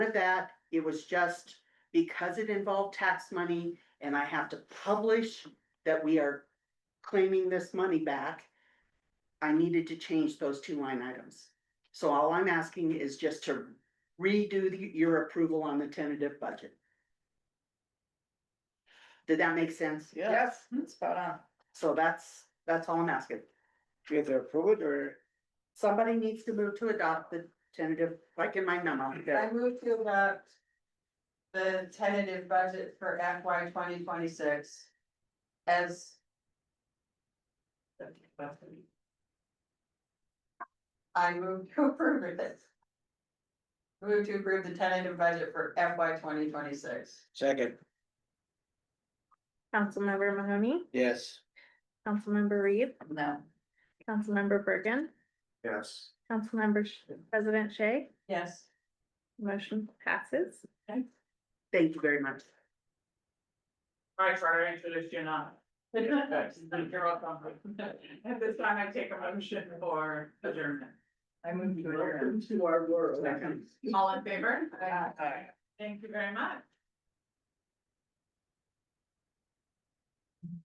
with that, it was just because it involved tax money and I have to publish that we are claiming this money back. I needed to change those two line items. So all I'm asking is just to redo the- your approval on the tentative budget. Did that make sense? Yes, hmm, spot on. So that's, that's all I'm asking. Do you have to approve it or? Somebody needs to move to adopt the tentative, like in my memo. I move to adopt the tentative budget for FY twenty twenty-six as I move to approve of this. Move to approve the tentative budget for FY twenty twenty-six. Second, Councilmember Mahoney, yes. Councilmember Reed, No. Councilmember Bergen, Yes. Councilmember Sh- President Shay, Yes. motion passes. Thank you very much. I try to introduce you now. You're welcome. At this time, I take a motion for adjournment. I move to All in favor? Thank you very much.